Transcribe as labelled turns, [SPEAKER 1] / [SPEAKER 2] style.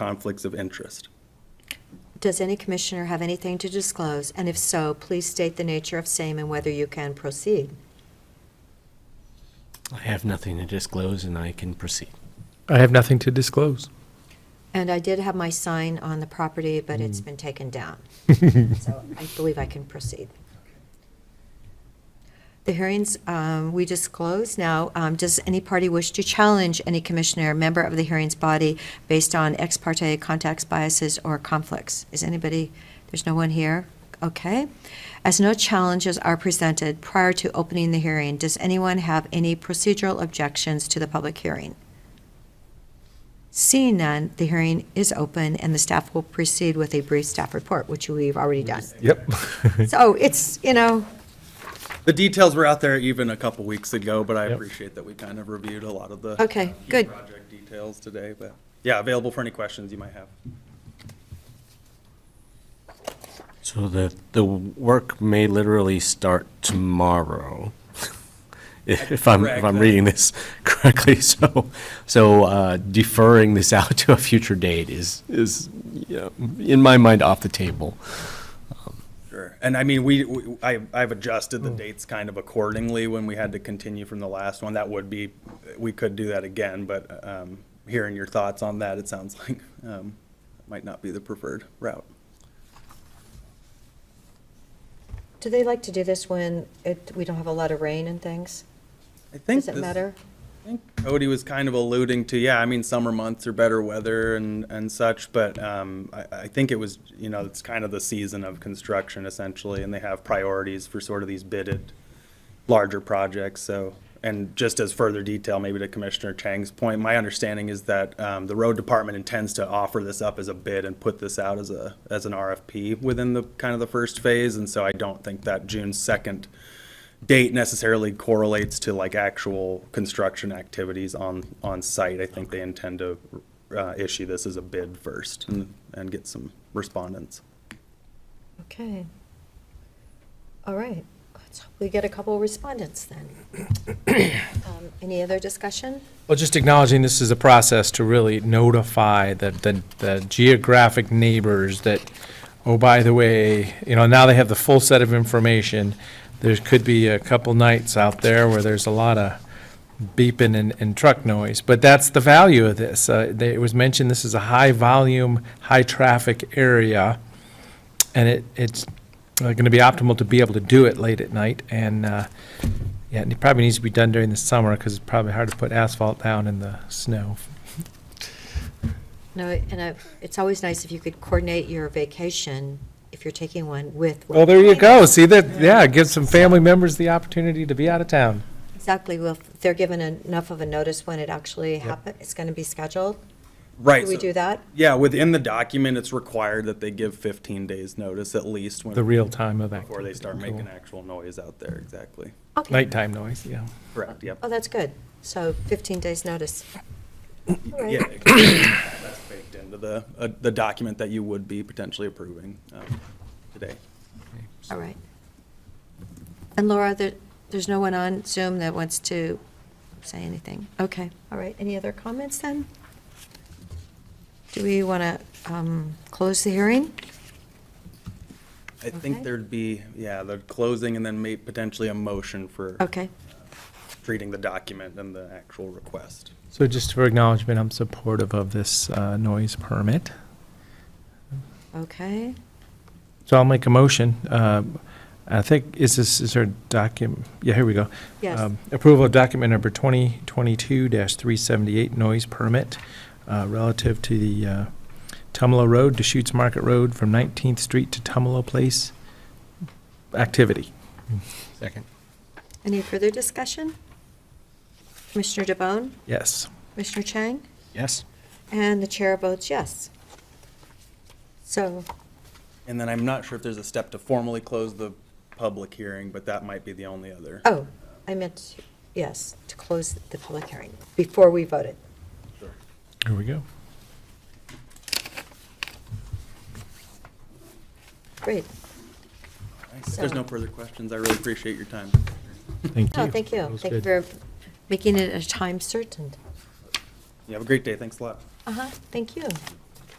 [SPEAKER 1] conflicts of interest.
[SPEAKER 2] Does any commissioner have anything to disclose? And if so, please state the nature of same and whether you can proceed.
[SPEAKER 3] I have nothing to disclose and I can proceed.
[SPEAKER 4] I have nothing to disclose.
[SPEAKER 2] And I did have my sign on the property, but it's been taken down. So I believe I can proceed. The hearings, um, we just closed now. Um, Does any party wish to challenge any commissioner, member of the hearings body, based on ex parte contacts, biases, or conflicts? Is anybody, there's no one here? Okay. As no challenges are presented prior to opening the hearing, does anyone have any procedural objections to the public hearing? Seeing none, the hearing is open, and the staff will proceed with a brief staff report, which we've already done.
[SPEAKER 4] Yep.
[SPEAKER 2] So it's, you know,
[SPEAKER 1] The details were out there even a couple weeks ago, but I
[SPEAKER 4] Yep.
[SPEAKER 1] appreciate that we kind of reviewed a lot of the. uh,
[SPEAKER 2] Okay,
[SPEAKER 1] key
[SPEAKER 2] good.
[SPEAKER 1] Project details today, but yeah, available for any questions you might have.
[SPEAKER 3] So the, the work may literally start tomorrow, if I'm, if I'm
[SPEAKER 1] Correct.
[SPEAKER 3] reading this correctly. So, so uh, deferring this out to a future date is, is, you know, in my mind, off the table.
[SPEAKER 1] Sure. And I mean, we, we- I, I've adjusted the dates kind of accordingly when we had to continue from the last one. That would be, we could do that again, but, um, hearing your thoughts on that, it sounds like, um, might not be the preferred route.
[SPEAKER 2] do they like to do this when it, we don't have a lot of rain and things?
[SPEAKER 1] I think
[SPEAKER 2] Does it
[SPEAKER 1] this-
[SPEAKER 2] matter?
[SPEAKER 1] I think Cody was kind of alluding to, yeah, I mean, summer months are better weather and, and such, but, um, I, I think it was, you know, it's kind of the season of construction essentially, and they have priorities for sort of these bidded larger projects, so. And just as further detail, maybe to Commissioner Chang's point, my understanding is that, um, the road department intends to offer this up as a bid and put this out as a, as an RFP within the, kind of the first phase, and so I don't think that June second date necessarily correlates to like actual construction activities on, on site. I think they intend to uh, issue this as a bid first and,
[SPEAKER 2] Mm-hmm.
[SPEAKER 1] and get some respondents.
[SPEAKER 2] Okay. All right, let's hope we get a couple of respondents then. Um, Any other discussion?
[SPEAKER 4] Well, just acknowledging this is a process to really notify the, the, the geographic neighbors that, oh, by the way, you know, now they have the full set of information. There could be a couple nights out there where there's a lot of beeping and, and truck noise, but that's the value of this. Uh, they- it was mentioned this is a high-volume, high-traffic area, and it, it's going to be optimal to be able to do it late at night, and, uh, yeah, and it probably needs to be done during the summer because it's probably hard to put asphalt down in the snow.
[SPEAKER 2] No, and I- it's always nice if you could coordinate your vacation, if you're taking one, with. what
[SPEAKER 4] Well, there
[SPEAKER 2] you're
[SPEAKER 4] you
[SPEAKER 2] planning.
[SPEAKER 4] go. See that? Yeah, give some family members the opportunity to be out of town.
[SPEAKER 2] Exactly, well, if they're given enough of a notice when it actually happens, it's going to be scheduled.
[SPEAKER 1] Right.
[SPEAKER 2] Do we
[SPEAKER 1] so-
[SPEAKER 2] do that?
[SPEAKER 1] Yeah, within the document, it's required that they give 15 days notice at least when.
[SPEAKER 4] The real time of that.
[SPEAKER 1] Before they start making actual noise out there, exactly.
[SPEAKER 2] Okay.
[SPEAKER 4] Nighttime noise, yeah.
[SPEAKER 1] Correct, yep.
[SPEAKER 2] Oh, that's good. So 15 days' notice. All right.
[SPEAKER 1] Yeah, that's baked into the, uh, the document that you would be potentially approving um, today.
[SPEAKER 2] All right. And Laura, there, there's no one on Zoom that wants to say anything? Okay, all right. Any other comments then? Do we want to close the hearing?
[SPEAKER 1] I
[SPEAKER 2] Okay.
[SPEAKER 1] think there'd be, yeah, the closing and then may, potentially a motion for.
[SPEAKER 2] Okay,
[SPEAKER 1] treating the document and the actual request.
[SPEAKER 4] So just for acknowledgement, I'm supportive of this uh, noise permit.
[SPEAKER 2] okay.
[SPEAKER 4] So I'll make a motion. Um, I think, is this, is there a document? Yeah, here we go.
[SPEAKER 2] Yes.
[SPEAKER 4] Um, Approval of document number 2022-378 noise permit uh, relative to the uh, Tumalo Road, Deschutes Market Road from 19th Street to Tumalo Place activity.
[SPEAKER 3] Second.
[SPEAKER 2] Any further discussion? Commissioner DeBonne,
[SPEAKER 4] Yes.
[SPEAKER 2] Commissioner Chang,
[SPEAKER 3] Yes?
[SPEAKER 2] and the chair votes yes. So
[SPEAKER 1] And then I'm not sure if there's a step to formally close the public hearing, but that might be the only other.
[SPEAKER 2] Oh, I meant, yes, to close the public hearing before we voted.
[SPEAKER 4] Here we go.
[SPEAKER 2] Great.
[SPEAKER 1] If there's no further questions, I really appreciate your time.
[SPEAKER 4] Thank you.
[SPEAKER 2] No, Oh, thank
[SPEAKER 4] That
[SPEAKER 2] you.
[SPEAKER 4] was
[SPEAKER 2] Thank you
[SPEAKER 4] good.
[SPEAKER 2] for making it a time certain.
[SPEAKER 1] You have a great day, thanks a lot.
[SPEAKER 2] Uh-huh, thank you.